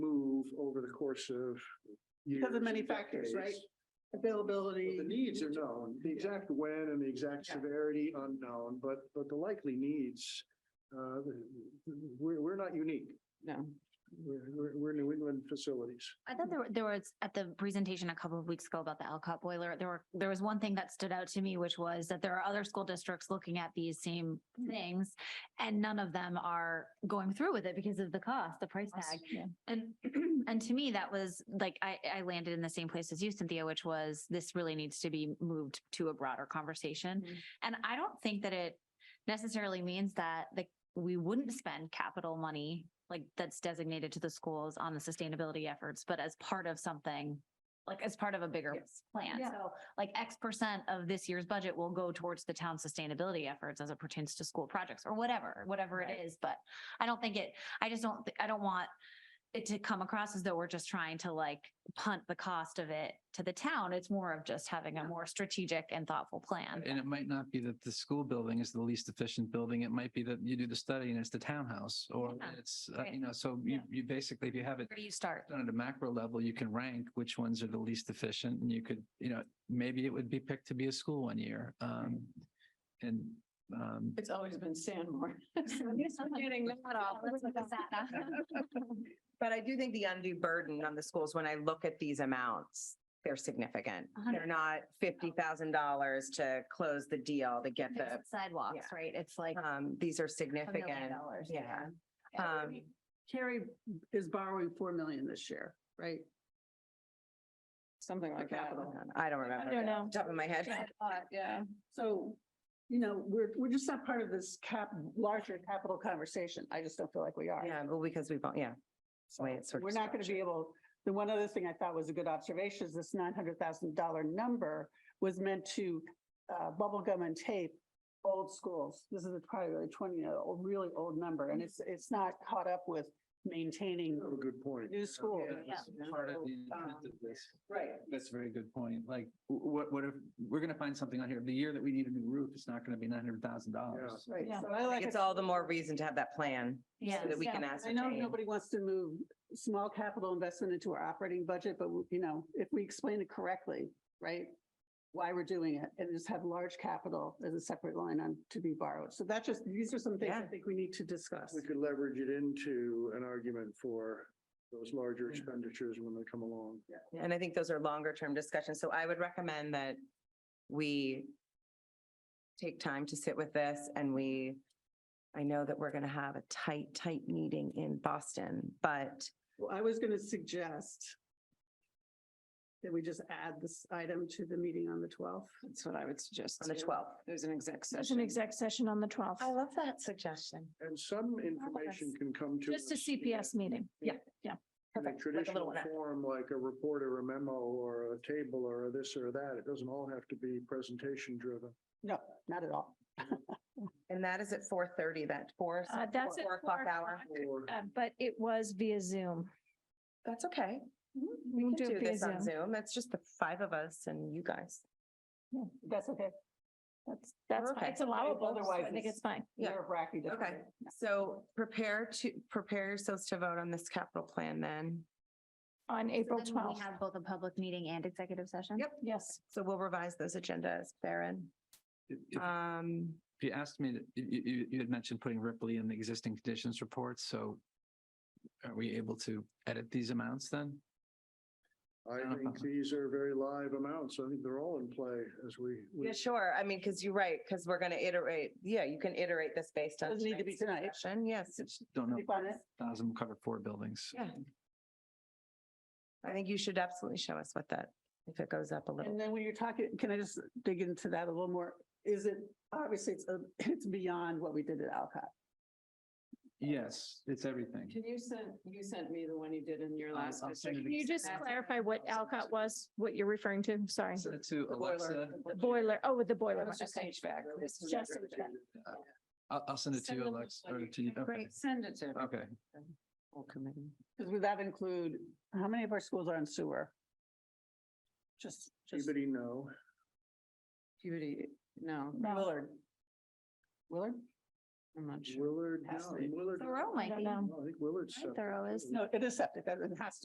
course of years. Because of many and factors, right? decades. But Availability. The needs are known, the exact when and the exact Yeah. severity unknown, but, but the likely needs, uh, we're, we're not unique. No. We're, we're, we're New England facilities. I thought there, were- there was, at the presentation a couple of weeks ago about the Alcott boiler, there were, there was one thing that stood out to me, which was that there are other school districts looking at these same things, and none of them are going through with it because of the cost, the price tag. And, and to me, that was like, I, I landed in the same place as you, Cynthia, which was this really needs to be moved to a broader conversation. Mhm. And I don't think that it necessarily means that the, we wouldn't spend capital money like that's designated to the schools on the sustainability efforts, but as part of something, like as part of a bigger plan. Yeah. So like X percent of this year's budget will go towards the town's sustainability efforts as it pertains to school projects or whatever, whatever it is. But I don't think it, I just don't, thi- I don't want it to come across as though we're just trying to like punt the cost of it to the town. It's more of just having a more strategic and thoughtful plan. And it might not be that the school building is the least efficient building. It might be that you do the study and it's the townhouse or Yeah, it's, uh, right. you know, so you, Yeah. you basically, if you have it Where do you start? done at a macro level, you can rank which ones are the least efficient and you could, you know, maybe it would be picked to be a school one year. Um, and, um, It's always been Sandmore. Getting that off. Let's look at that. But I do think the undue burden on the schools, when I look at these amounts, they're significant. A hundred They're not fifty thousand dollars to close the deal to get Fix the, the Sidewalks, right? It's like a um, these are million significant. dollars. yeah. Um, Carrie is borrowing four million this year, right? Something like For that. capital. I don't remember. don't know. Top of my head. Yeah, a lot, Yeah, So, you know, we're, we're just not part of this cap, larger capital conversation. I just don't feel like we are. Yeah, well, because we've, all- yeah. It's the way it's sort of We're not going to structured. be able, the one other thing I thought was a good observation is this nine hundred thousand dollar number was meant to uh, bubble gum and tape old schools. This is a probably really twenty, year old really old number, and it's, it's not caught up with maintaining. You have a good point. New school. Yeah, that's Part of the intent of this. Right. That's a very good point. Like, wh- what, what if, we're going to find something on here. The year that we need a new roof, it's not going to be nine hundred thousand dollars. Right. Yeah. So I like. It's it. all the more reason to have that plan. Yeah. So that we can Yeah. ascertain. I know nobody wants to move small capital investment into our operating budget, but you know, if we explain it correctly, right? Why we're doing it and just have large capital as a separate line on to be borrowed. So that's just, these are some things I Yeah. think we need to discuss. We could leverage it into an argument for those larger Yeah. expenditures when they come along. And I think those are longer term discussions. So I would recommend that we take time to sit with this and we, I know that we're going to have a tight, tight meeting in Boston, but Well, I was going to suggest that we just add this item to the meeting on the twelfth. that's what I would suggest. on the too. 12th. There's an exec session. There's an exec session on the twelfth, love that suggestion. And some information can come to. just a us in a- CPS meeting. Yeah, yeah. In a Perfect, like a little traditional one. form, like a report or a memo or a table or a this or that. It doesn't all have to be presentation driven. No, not at all. And that is at four thirty, that four. Uh, that's at Four o'clock four hour. Or Uh, but it was via Zoom. That's okay. Mm-hmm. We can can do do it via this on Zoom. Zoom. It's just the five of us and you guys. That's okay. That's, that's, We're fine. okay. it's allowable. so Otherwise I think it's- it's fine. Yeah. Nerve wracking. Okay. So prepare to, prepare yourselves to vote on this capital plan then. On So April then We twelfth. have both a public meeting and executive session? Yep. Yes. So we'll revise those agendas, Baron. If- if- Um, If you asked me, to- you, you, you had mentioned putting Ripley in the existing conditions report, so are we able to edit these amounts then? I think these are very live amounts. I think they're all in play as we. we- yeah, sure. I mean, because you're right, because we're going to iterate. Yeah, you can iterate this based on. Doesn't need to be tonight's tonight. discussion. Yes, Just Don't know, Sleep on it. thousand will cover four buildings. Yeah. I think you should absolutely show us what that, if it goes up a little. And then when you're talking, can I just dig into that a little more? Is it, obviously, it's, a- it's beyond what we did at Alcott. Yes, it's everything. Can you send, you sent me the one you did in your I'll- last. I'll district. send it Can you just That's- clarify what Alcott was, what you're referring to? Sorry. Send it to Alexa. The boiler, oh, with the That boiler. one, was just okay. HVAC. It's just HVAC. I'll, I'll send it to Send you, them Alexa, what or you to you. think. Okay. Send it to. me. Okay. Full committee. Because would that include, how many of our schools are in sewer? Just, just Anybody know? Beauty, no, Willard. Willard? I'm not sure. Willard, Has no, to be. Willard. Thorough I might don't be. know. No, I think Willard. Thorough is- No, it is septic, that it has to